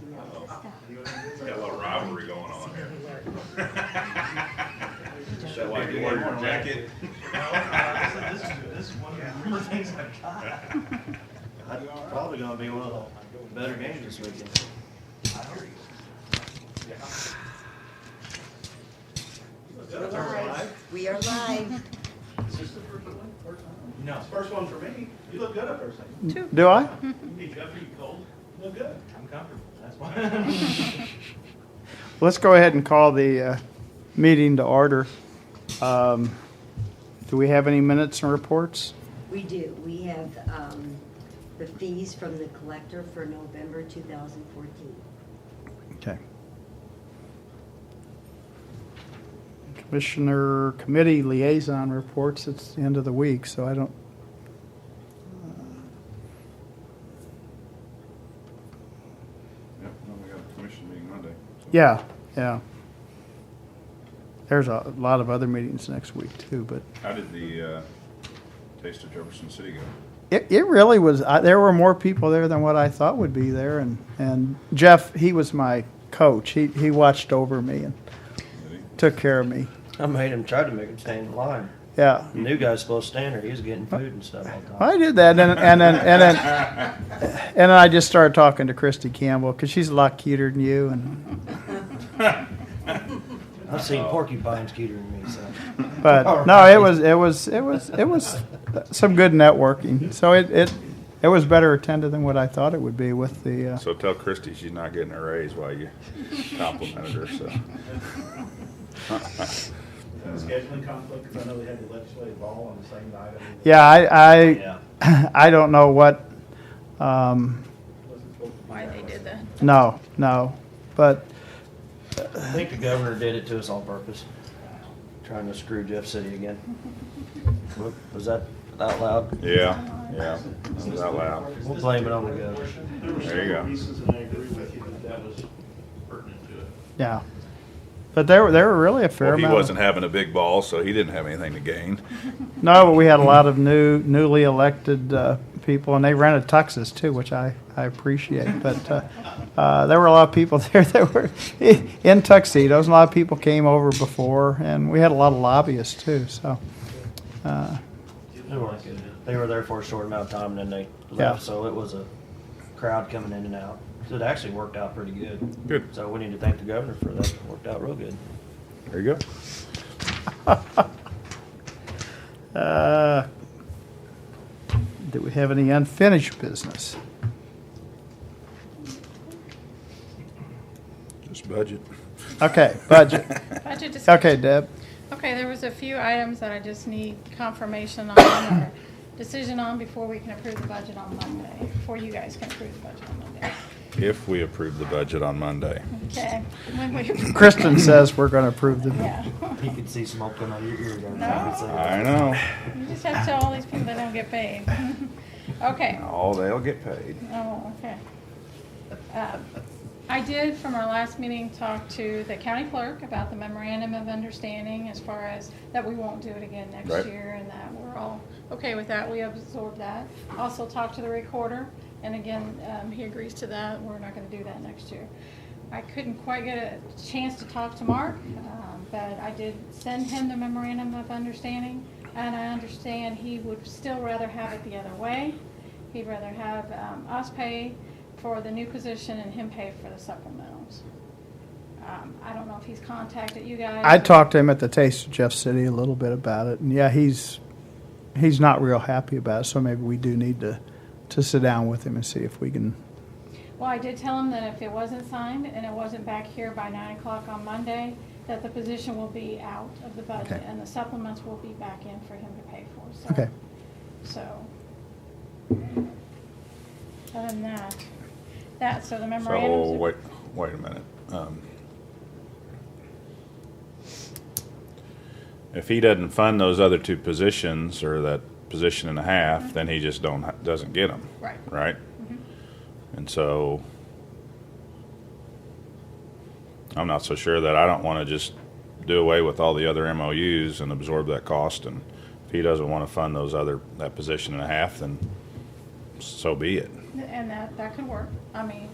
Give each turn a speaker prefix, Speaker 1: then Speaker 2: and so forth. Speaker 1: so.
Speaker 2: Got a little rivalry going on here.
Speaker 3: So I
Speaker 2: Why,
Speaker 3: do
Speaker 2: you wore your
Speaker 3: want to,
Speaker 2: jacket?
Speaker 1: Uh, This is, this is one of the rare things I've got.
Speaker 3: that's probably gonna be one of the better games this weekend.
Speaker 4: We're live. We are live.
Speaker 5: Is this the first one? First one?
Speaker 1: No,
Speaker 5: First one for me. You look good up there, son.
Speaker 6: Do I?
Speaker 5: Hey, Jeff, you cold? Look good.
Speaker 1: I'm comfortable, that's why.
Speaker 6: Let's go ahead and call the uh, meeting to order. Um, Do we have any minutes and reports?
Speaker 4: We do. We have um, the fees from the collector for November 2014.
Speaker 6: Okay. Commissioner Committee Liaison Reports, it's the end of the week, so I don't.
Speaker 2: Yep, no, we got a commission meeting Monday. so-
Speaker 6: Yeah, yeah. There's a lot of other meetings next week too, but
Speaker 2: How did the, uh, Taste of Jefferson City go?
Speaker 6: It, it really was. I, there were more people there than what I thought would be there, and, and Jeff, he was my coach. He he watched over me and
Speaker 2: Did he?
Speaker 6: took care of me.
Speaker 3: I made him, try to make him stay in line.
Speaker 6: Yeah,
Speaker 3: The new guy's supposed to stand there, he was getting food and stuff all the time.
Speaker 6: I did that, and and then and then and then I just started talking to Christy Campbell because she's a lot cuter than you, and
Speaker 3: I've seen porcupines cuter than me, so.
Speaker 6: but no, it was it was it was it was some good networking. So it it it was better attended than what I thought it would be with the. Uh,
Speaker 2: So tell Christie she's not getting a raise while you complimented her, so.
Speaker 5: Uh, Scheduling conflict, because I know they had the legislative ball on the same night. I mean,
Speaker 6: yeah, I
Speaker 3: Yeah.
Speaker 6: I I don't know what. Um,
Speaker 5: it wasn't supposed to be
Speaker 7: why
Speaker 5: that
Speaker 7: they
Speaker 5: way.
Speaker 7: did that.
Speaker 6: No, no, but
Speaker 3: I think the governor did it to us on purpose, trying to screw Jeff City again. Whoop, Was that out loud?
Speaker 2: Yeah, yeah, that was out loud.
Speaker 3: We'll blame it on the governor.
Speaker 5: There were
Speaker 2: There you
Speaker 5: several
Speaker 2: go.
Speaker 5: pieces, and I agree with you that that was pertinent to it.
Speaker 6: yeah, but there were there were really a fair
Speaker 2: Well, he
Speaker 6: amount.
Speaker 2: wasn't having a big ball, so he didn't have anything to gain.
Speaker 6: Of, no, but we had a lot of new newly elected uh, people, and they rented tuxes too, which I I appreciate. But uh, uh, there were a lot of people there that were in tuxedos. And a lot of people came over before, and we had a lot of lobbyists too. So. Uh,
Speaker 3: They weren't good. They were there for a short amount of time and then they left,
Speaker 6: Yeah.
Speaker 3: so it was a crowd coming in and out. So it actually worked out pretty good.
Speaker 2: Good.
Speaker 3: So we need to thank the governor for that. It worked out real good.
Speaker 2: There you go.
Speaker 6: uh, do we have any unfinished business?
Speaker 2: Just budget.
Speaker 6: Okay, budget.
Speaker 7: Budget discussion.
Speaker 6: Okay, Deb.
Speaker 7: Okay, there was a few items that I just need confirmation on or decision on before we can approve the budget on Monday, before you guys can approve the budget on Monday.
Speaker 2: If we approve the budget on Monday.
Speaker 7: Okay, when we,
Speaker 6: Kristen says we're going to approve the.
Speaker 7: yeah.
Speaker 3: You could see smoke coming out of your ears. every time
Speaker 7: No.
Speaker 3: you say that.
Speaker 2: I know.
Speaker 7: You just have to tell all these people they don't get paid. Okay.
Speaker 2: Oh, they'll get paid.
Speaker 7: Oh, okay. Um, I did, from our last meeting, talk to the county clerk about the memorandum of understanding as far as that we won't do it again
Speaker 2: Right.
Speaker 7: next year and that we're all okay with that. We absorbed that. Also talked to the recorder, and again, um, he agrees to that. We're not gonna do that next year. I couldn't quite get a chance to talk to Mark, um, but I did send him the memorandum of understanding, and I understand he would still rather have it the other way. He'd rather have um, us pay for the new position and him pay for the supplementals. Um, I don't know if he's contacted you guys.
Speaker 6: I talked to him at the Taste of Jeff City a little bit about it, and yeah, he's he's not real happy about it. So maybe we do need to to sit down with him and see if we can.
Speaker 7: Well, I did tell him that if it wasn't signed and it wasn't back here by nine o'clock on Monday, that the position will be out of the budget
Speaker 6: Okay.
Speaker 7: and the supplements will be back in for him to pay for, so.
Speaker 6: Okay.
Speaker 7: So. Other than that, that, so the
Speaker 2: So,
Speaker 7: memorandums.
Speaker 2: wait, wait a minute. Um, If he doesn't fund those other two positions or that position and a half, then he just don't, doesn't get them,
Speaker 7: Right,
Speaker 2: right?
Speaker 7: Mhm.
Speaker 2: And so I'm not so sure that I don't want to just do away with all the other MOUs and absorb that cost. And if he doesn't want to fund those other, that position and a half, then so be it.
Speaker 7: and that, that could work. I mean,